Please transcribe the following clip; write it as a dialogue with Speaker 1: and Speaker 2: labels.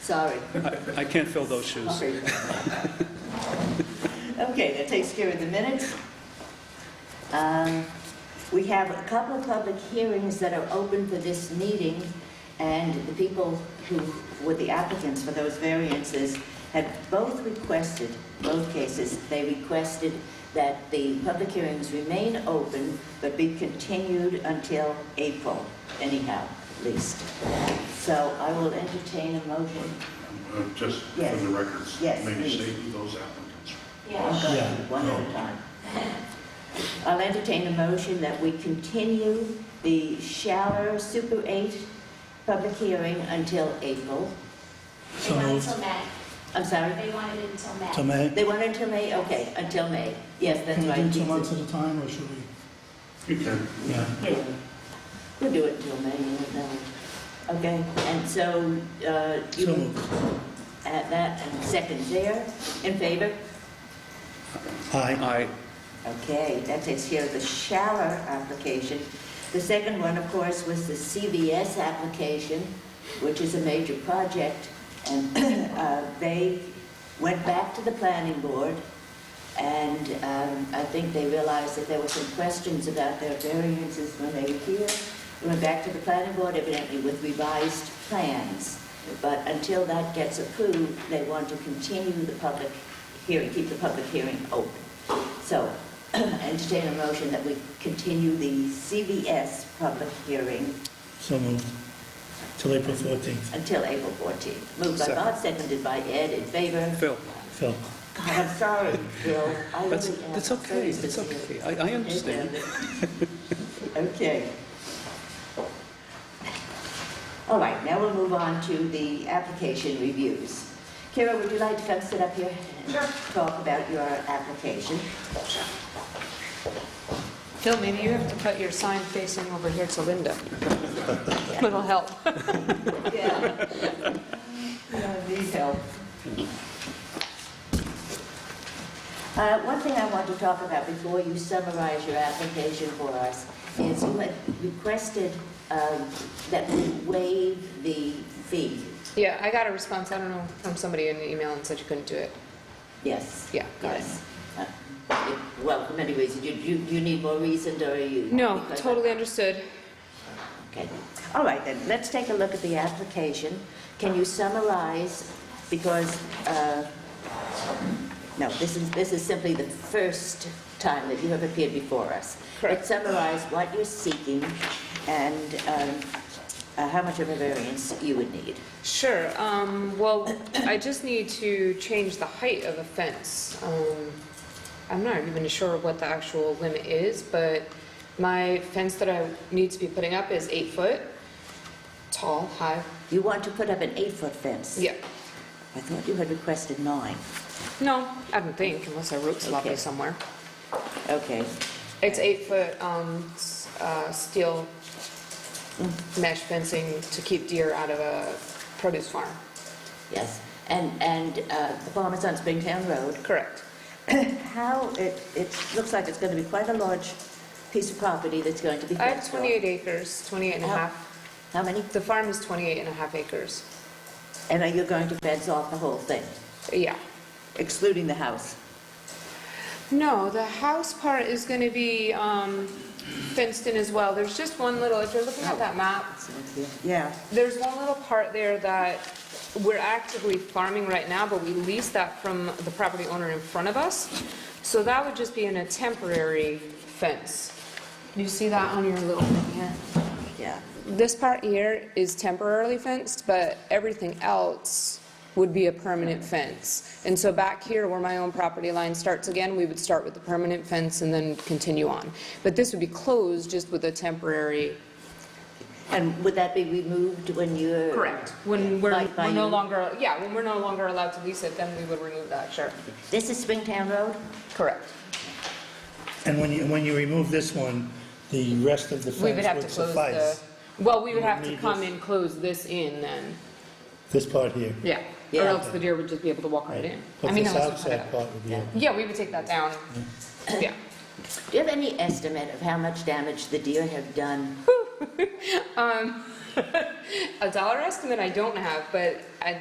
Speaker 1: Sorry.
Speaker 2: I can't fill those shoes.
Speaker 1: Sorry. Okay, that takes care of the minutes. Um, We have a couple of public hearings that are open for this meeting, and the people who were the applicants for those variances had both requested, both cases, they requested that the public hearings remain open but be continued until April, anyhow, at least. So I will entertain a motion.
Speaker 3: Uh, Just for
Speaker 1: Yes.
Speaker 3: the records,
Speaker 1: Yes,
Speaker 3: maybe
Speaker 1: please.
Speaker 3: say who those applicants.
Speaker 1: I'm going one at a time. I'll entertain a motion that we continue the Shaller Super 8 public hearing until April.
Speaker 4: They want it till May.
Speaker 1: I'm sorry,
Speaker 4: They wanted it until May.
Speaker 5: To May?
Speaker 1: they want until May? Okay, until May. Yes, that's
Speaker 5: Can we
Speaker 1: right.
Speaker 5: do two
Speaker 1: Jesus.
Speaker 5: months at a time, or should we?
Speaker 3: You can,
Speaker 5: Yeah.
Speaker 1: Yeah. We'll do it until May, you know. Okay, and so uh,
Speaker 5: So
Speaker 1: you
Speaker 5: moved.
Speaker 1: add that and second there, in favor?
Speaker 5: Aye.
Speaker 2: I,
Speaker 1: Okay, that takes care of the shower application. The second one, of course, was the CVS application, which is a major project. And uh, they went back to the planning board, and um, I think they realized that there were some questions about their variances when they were here. They Went back to the planning board evidently with revised plans. But until that gets approved, they want to continue the public hearing, keep the public hearing open. So entertain a motion that we continue the CVS public hearing
Speaker 5: So moved. Till April 14th.
Speaker 1: until April 14th. Moved by Bob, seconded by Ed, in favor.
Speaker 2: Phil,
Speaker 5: Phil?
Speaker 1: God, I'm sorry, Bill. I really
Speaker 2: that's,
Speaker 1: am.
Speaker 2: that's
Speaker 1: I'm
Speaker 2: okay,
Speaker 1: sorry,
Speaker 2: it's
Speaker 1: Mr. Bill.
Speaker 2: okay. I, I understand.
Speaker 1: Okay. All right, now we'll move on to the application reviews. Kara, would you like to come sit up here and talk about your application?
Speaker 6: Phil, maybe you have to put your sign facing over here to Linda. It'll help.
Speaker 1: Yeah. I need help. Uh, One thing I want to talk about before you summarize your application for us is you had requested um, that we waive the fee.
Speaker 6: Yeah, I got a response, I don't know, from somebody in the email and said you couldn't do it.
Speaker 1: Yes.
Speaker 6: Yeah, got it.
Speaker 1: Yes. Uh, it- Well, for many reasons. You- You you need more reason, or you...
Speaker 6: No,
Speaker 1: because I-
Speaker 6: totally understood.
Speaker 1: Okay. All right, then, let's take a look at the application. Can you summarize, because, uh, no, this is, this is simply the first time that you have appeared before us. But
Speaker 6: Correct.
Speaker 1: summarize what you're seeking and um, uh, how much of a variance you would need.
Speaker 6: Sure, um, well, I just need to change the height of the fence. Um, I'm not even sure what the actual limit is, but my fence that I need to be putting up is eight foot tall, high.
Speaker 1: You want to put up an eight-foot fence?
Speaker 6: Yeah,
Speaker 1: I thought you had requested nine.
Speaker 6: no, I don't think, unless I wrote sloppy
Speaker 1: Okay.
Speaker 6: somewhere.
Speaker 1: Okay,
Speaker 6: It's eight foot, um, s- uh, steel mesh fencing to keep deer out of a produce farm.
Speaker 1: yes. And, and uh, the farm is on Springtown Road?
Speaker 6: Correct.
Speaker 1: How, it, it looks like it's going to be quite a large piece of property that's going to be.
Speaker 6: I have
Speaker 1: fenced off.
Speaker 6: 28 acres, 28 and a
Speaker 1: How-
Speaker 6: half.
Speaker 1: How many?
Speaker 6: The farm is 28 and a half acres.
Speaker 1: And are you going to fence off the whole thing,
Speaker 6: Yeah.
Speaker 1: excluding the house?
Speaker 6: No, the house part is going to be, um, fenced in as well. There's just one little, if you're looking at that map,
Speaker 1: Yeah.
Speaker 6: There's one little part there that we're actively farming right now, but we lease that from the property owner in front of us. So that would just be in a temporary fence. You see that on your little thing here?
Speaker 1: Yeah.
Speaker 6: This part here is temporarily fenced, but everything else would be a permanent fence. And so back here where my own property line starts again, we would start with the permanent fence and then continue on. But this would be closed just with a temporary
Speaker 1: And would that be removed when you're?
Speaker 6: Correct. When we're,
Speaker 1: Like by
Speaker 6: we're no
Speaker 1: you?
Speaker 6: longer, yeah, when we're no longer allowed to lease it, then we would remove that, sure.
Speaker 1: This is Springtown Road?
Speaker 6: Correct.
Speaker 5: And when you, when you remove this one, the rest of the
Speaker 6: We would
Speaker 5: fence
Speaker 6: have to
Speaker 5: would
Speaker 6: close the,
Speaker 5: suffice.
Speaker 6: well, we would have to
Speaker 5: need
Speaker 6: come
Speaker 5: this.
Speaker 6: and close this in then,
Speaker 5: This part here.
Speaker 6: yeah.
Speaker 1: Yeah.
Speaker 6: Or else the deer would just be able to walk right in. I
Speaker 5: But
Speaker 6: mean,
Speaker 5: this
Speaker 6: unless we cut
Speaker 5: outside
Speaker 6: it out.
Speaker 5: part would be
Speaker 1: Yeah.
Speaker 5: open.
Speaker 6: Yeah, we would take that down, yeah.
Speaker 1: Do you have any estimate of how much damage the deer have done?
Speaker 6: A dollar estimate I don't have, but I,